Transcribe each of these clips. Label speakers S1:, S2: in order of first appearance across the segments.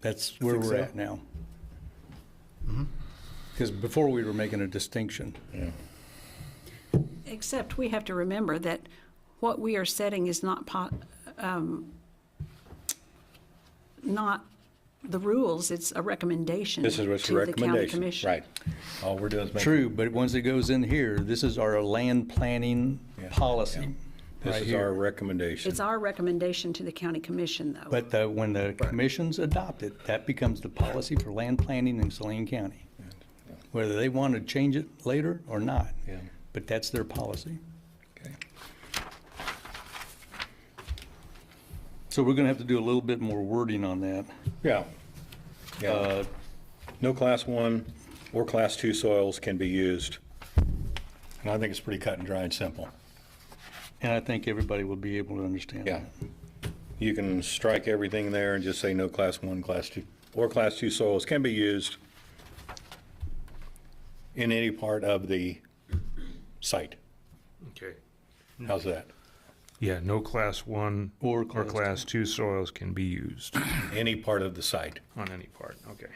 S1: That's where
S2: think
S1: we're
S2: so.
S1: at now.
S3: Mm-hmm.
S1: Because before we were making a distinction.
S4: Except we have to remember that what we are setting is not, po- um, not the rules, it's a recommendation
S3: This is what's the
S4: to the county
S3: recommendation,
S4: commission.
S3: right? All we're doing is making.
S1: True, but once it goes in here, this is our land planning
S3: Yeah,
S1: policy
S3: This
S1: right
S3: is our
S1: here.
S3: recommendation.
S4: It's our recommendation to the county commission, though.
S1: But the- when the commissions adopt it, that becomes the policy for land planning in Saline County. Whether they want to change it later or not,
S3: Yeah.
S1: but that's their policy.
S3: Okay.
S1: So we're going to have to do a little bit more wording on that.
S3: Yeah. Yeah.
S1: Uh,
S3: No class one or class two soils can be used. And I think it's pretty cut and dry and simple.
S1: And I think everybody will be able to understand.
S3: Yeah.
S1: that.
S3: You can strike everything there and just say no class one, class two, or class two soils can be used in any part of the site.
S5: Okay.
S3: How's that?
S5: Yeah, no class one
S1: Or
S5: or
S1: class
S5: class two soils can be used
S3: Any part of the site.
S5: on any part, okay.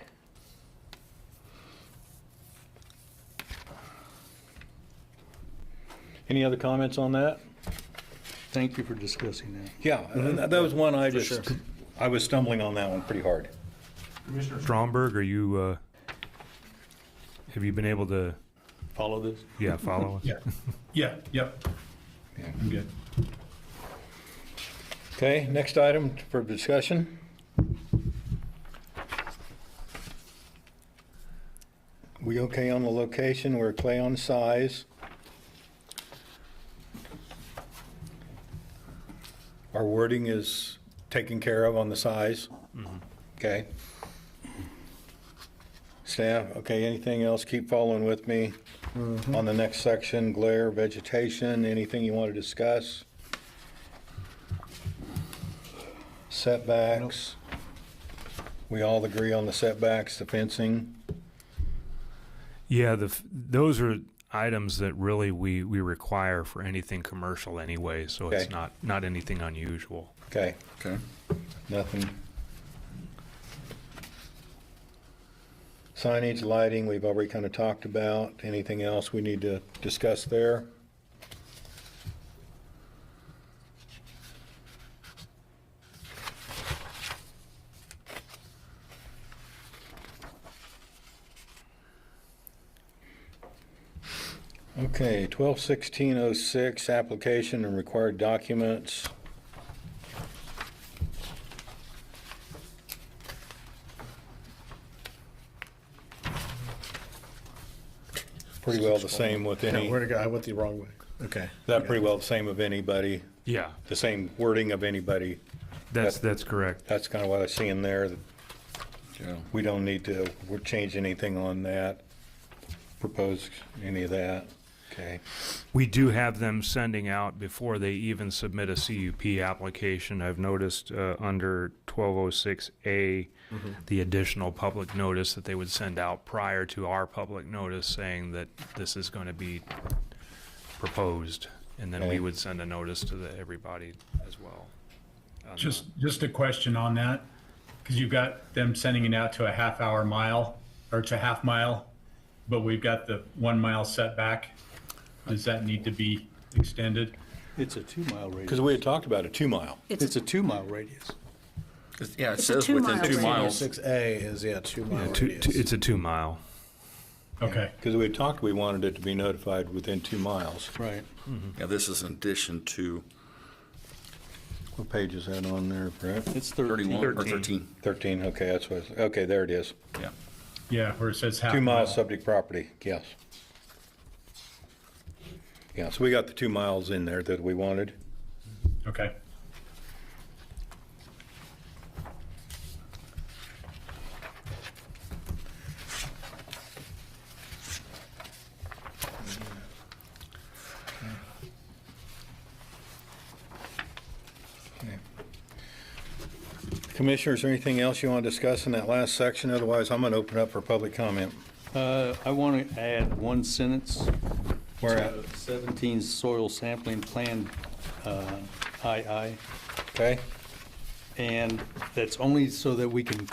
S3: Any other comments on that?
S1: Thank you for discussing that.
S3: Yeah, that that was one I just, I was stumbling on that one pretty hard.
S5: Commissioner Stromberg, are you, uh, have you been able to,
S3: Follow this?
S5: yeah, follow us?
S6: Yeah, yep.
S3: Yeah.
S6: I'm good.
S3: Okay, next item for discussion. We okay on the location, we're okay on size. Our wording is taken care of on the size. Okay. Staff, okay, anything else? Keep following with me on the next section, glare, vegetation, anything you want to discuss? Setbacks. We all agree on the setbacks, the fencing.
S5: Yeah, the, f- those are items that really we, we require for anything commercial anyway, so it's
S3: Okay.
S5: not, not anything unusual.
S3: Okay,
S6: Okay.
S3: nothing. Signage, lighting, we've already kind of talked about. Anything else we need to discuss there? Okay, twelve sixteen oh six, application and required documents. Pretty well the same with
S6: Yeah,
S3: any,
S6: where'd it go? I went the wrong way. Okay.
S3: that pretty well the same of anybody,
S5: Yeah,
S3: the same wording of anybody.
S5: that's, that's correct.
S3: That's kind of what I see in there, that
S6: Yeah.
S3: we don't need to, we're changing anything on that, propose any of that. Okay,
S5: We do have them sending out before they even submit a CUP application. I've noticed uh, under 1206A, the additional public notice that they would send out prior to our public notice saying that this is going to be proposed. And then
S3: Okay.
S5: we would send a notice to the, everybody as well. on the-
S6: Just, just a question on that, because you've got them sending it out to a half hour mile or to half mile, but we've got the one mile setback. Does that need to be extended?
S1: It's a two-mile radius.
S3: because we had talked about a two mile.
S1: It's a two-mile radius.
S7: It's- Yeah, it
S4: It's a
S7: says within
S4: two-mile
S7: two
S4: radius.
S7: miles.
S2: Six A is, yeah, two mile
S5: Two- two-
S2: radius.
S5: It's a two mile.
S6: Okay.
S3: Because we had talked, we wanted it to be notified within two miles.
S1: Right.
S7: Yeah, this is in addition to
S3: What page is that on there, Brett?
S1: It's 13.
S7: 31 or
S5: 13.
S7: 13.
S3: Thirteen, okay, that's what, it's- okay, there it is.
S7: Yeah.
S6: Yeah, where it says half.
S3: Two
S6: mile.
S3: miles subject property, yes. Yeah, so we got the two miles in there that we wanted.
S6: Okay.
S3: Commissioners, anything else you want to discuss in that last section? Otherwise, I'm going to open up for public comment.
S1: Uh, I want to add one sentence.
S3: Where
S1: to
S3: at?
S1: 17 soil sampling plan, uh, II,
S3: Okay?
S1: and that's only so that we can